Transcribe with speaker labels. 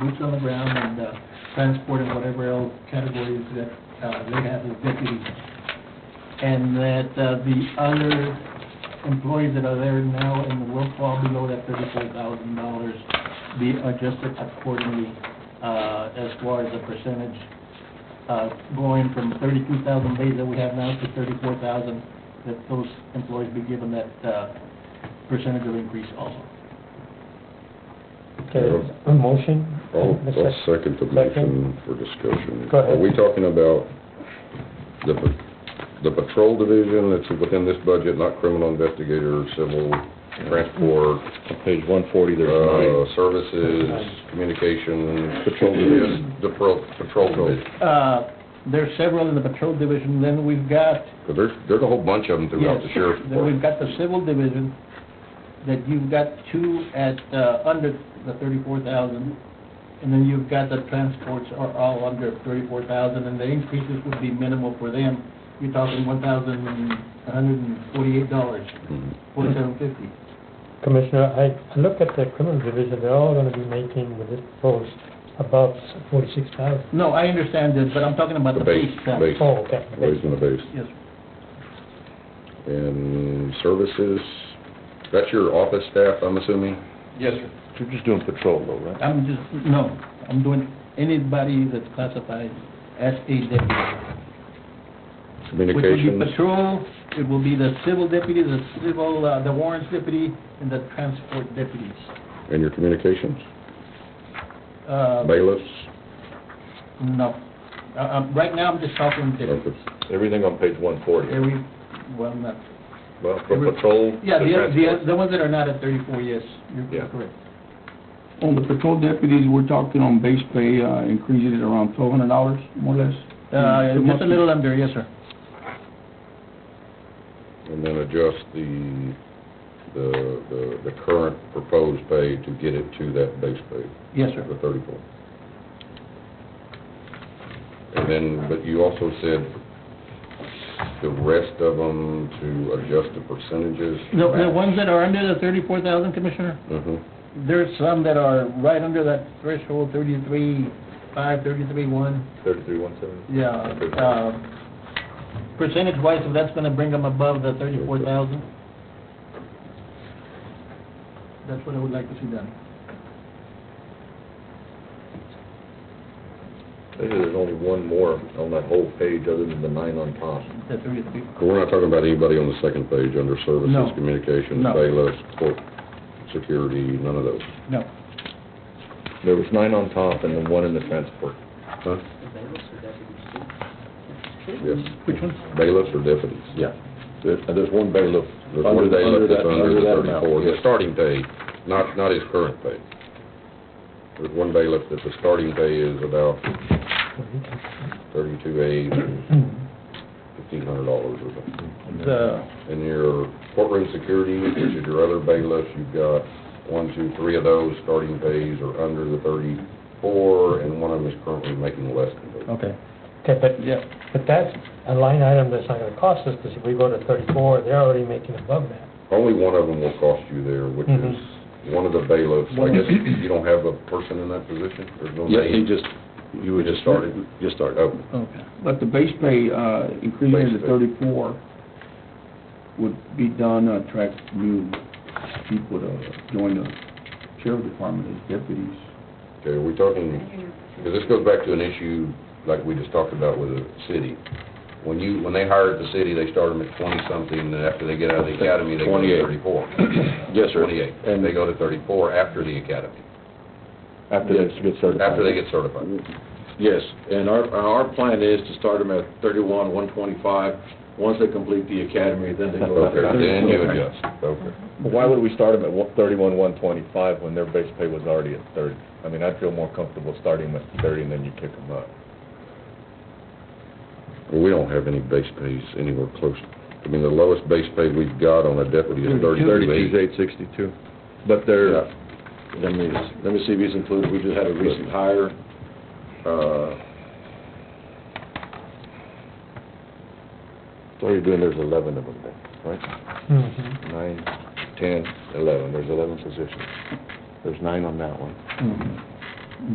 Speaker 1: boots on the ground and, uh, transport and whatever else categories that, uh, they have as deputies. And that, uh, the other employees that are there now in the will fall below that thirty-four thousand dollars be adjusted accordingly, uh, as far as the percentage, uh, going from thirty-two thousand days that we have now to thirty-four thousand, that those employees be given that, uh, percentage of increase also.
Speaker 2: Okay, a motion?
Speaker 3: I'll,
Speaker 2: Ms.
Speaker 3: I'll Oh, second the motion for discussion.
Speaker 2: Go ahead.
Speaker 3: Are we talking about the, pa- the patrol division that's within this budget, not criminal investigator, civil, transport,
Speaker 4: On page one forty, there's
Speaker 3: uh,
Speaker 4: nine.
Speaker 3: services, communication?
Speaker 4: Patrol division.
Speaker 3: The pro, patrol division.
Speaker 1: Uh, there's several in the patrol division, then we've got,
Speaker 3: 'Cause there's, there's a whole bunch of them
Speaker 1: yes,
Speaker 3: throughout the sheriff's
Speaker 1: then we've
Speaker 3: department.
Speaker 1: got the civil division, that you've got two at, uh, under the thirty-four thousand, and then you've got the transports are all under thirty-four thousand, and the increases would be minimal for them. You're talking one thousand one hundred and forty-eight dollars,
Speaker 3: Mhm.
Speaker 1: forty-seven fifty.
Speaker 2: Commissioner, I I look at the criminal division, they're all gonna be making with this proposed about forty-six thousand.
Speaker 1: No, I understand this, but I'm talking about
Speaker 3: The
Speaker 1: the
Speaker 3: base,
Speaker 1: base salary.
Speaker 3: base.
Speaker 2: Oh, okay.
Speaker 3: Raising the base.
Speaker 1: Yes,
Speaker 3: And services, that's your office staff, I'm assuming?
Speaker 4: Yes, sir. You're just doing patrol though, right?
Speaker 1: I'm just, no, I'm doing anybody that's classified as a deputy. Which would
Speaker 3: Communications?
Speaker 1: be patrol, it will be the civil deputy, the civil, uh, the warrants deputy, and the transport deputies.
Speaker 3: And your communications?
Speaker 1: Uh,
Speaker 3: Bailiffs?
Speaker 1: No. Uh, um, Right now, I'm just talking deputies.
Speaker 3: Okay.
Speaker 4: Everything on page one forty.
Speaker 1: Every, well, not,
Speaker 4: Well, from patrol to
Speaker 1: yeah, the, the,
Speaker 4: transport.
Speaker 1: the ones that are not at thirty-four, yes,
Speaker 4: Yeah.
Speaker 1: you're correct.
Speaker 5: On the patrol deputies, we're talking on base pay, uh, increasing it around twelve hundred dollars, more or less?
Speaker 4: Hmm.
Speaker 1: Uh,
Speaker 5: Two
Speaker 1: Just
Speaker 5: months.
Speaker 1: a little under, yes, sir.
Speaker 3: And then adjust the, the, the, the current proposed pay to get it to that base pay,
Speaker 1: Yes, sir.
Speaker 3: the thirty-four. And then, but you also said the rest of them to adjust the percentages?
Speaker 1: The, the ones that are under the thirty-four thousand, Commissioner,
Speaker 3: hmm
Speaker 1: there's some that are right under that threshold, thirty-three, five, thirty-three, one.
Speaker 4: Thirty-three, one seventy.
Speaker 1: Yeah, uh, percentage-wise, if that's gonna bring them above the thirty-four thousand. That's what I would like to see done.
Speaker 4: There's only one more on that whole page other than the nine on top.
Speaker 1: The thirty-three,
Speaker 3: We're not talking about anybody on the second page under
Speaker 1: No.
Speaker 3: services, communications,
Speaker 1: No.
Speaker 3: bailiffs, court, security, none of those?
Speaker 1: no.
Speaker 4: There was nine on top and then one in the transport.
Speaker 3: Huh? Yes.
Speaker 1: Which ones?
Speaker 3: Bailiffs or deputies?
Speaker 4: Yeah.
Speaker 3: There's, there's one bailiff. There's
Speaker 4: Under-
Speaker 3: one bailiff
Speaker 4: under
Speaker 3: that's
Speaker 4: that-
Speaker 3: under
Speaker 4: under
Speaker 3: the
Speaker 4: that amount,
Speaker 3: thirty-four, the
Speaker 4: yes.
Speaker 3: starting pay, not, not his current pay. There's one bailiff that the starting pay is about thirty-two eight, fifteen hundred dollars or something.
Speaker 1: The,
Speaker 3: And your courtroom security, which is your other bailiff, you've got one, two, three of those starting pays are under the thirty-four, and one of them is currently making less than thirty.
Speaker 1: okay,
Speaker 2: Okay, but,
Speaker 1: yeah,
Speaker 2: but that's a line item that's not gonna cost us, because if we go to thirty-four, they're already making above that.
Speaker 3: Only one of them will cost you there, which
Speaker 2: Mhm.
Speaker 3: is Mm-hmm. one of the bailiffs. I guess you don't have a person in that position? There's no
Speaker 4: Yeah, he
Speaker 3: name?
Speaker 4: just, you were
Speaker 3: Just
Speaker 4: just
Speaker 3: started.
Speaker 4: started. Just started.
Speaker 3: Oh,
Speaker 1: okay.
Speaker 5: But the base pay, uh, increasing
Speaker 3: Base
Speaker 5: to
Speaker 3: pay.
Speaker 5: thirty-four would be done, to attract new people to join the sheriff department as deputies.
Speaker 3: okay, are we talking, because this goes back to an issue like we just talked about with the city. When you, when they hired the city, they started them at twenty-something, and after they get out of the academy, they go to
Speaker 4: 28.
Speaker 3: thirty-four.
Speaker 4: Yes, sir.
Speaker 3: Twenty-eight.
Speaker 4: And-
Speaker 3: They go to thirty-four after the academy,
Speaker 4: After they get started.
Speaker 3: after they get certified.
Speaker 6: Yes, and our, our plan is to start them at thirty-one, one twenty-five. Once they complete the academy, then they go up
Speaker 3: Okay,
Speaker 6: there.
Speaker 3: then you adjust. Okay.
Speaker 4: But Why would we start them at one- thirty-one, one twenty-five when their base pay was already at thirty? I mean, I'd feel more comfortable starting them at thirty and then you kick them up.
Speaker 3: We don't have any base pays anywhere close. I mean, the lowest base pay we've got on a deputy is thirty-two eight.
Speaker 4: Thirty-two, eight sixty-two. But they're,
Speaker 6: Let me, let me see if he's included, we just had a recent hire, uh,
Speaker 4: what are you doing, there's eleven of them there, right?
Speaker 2: Mhm.
Speaker 4: Nine, ten, eleven, there's eleven positions. There's nine on that one.
Speaker 1: Mhm.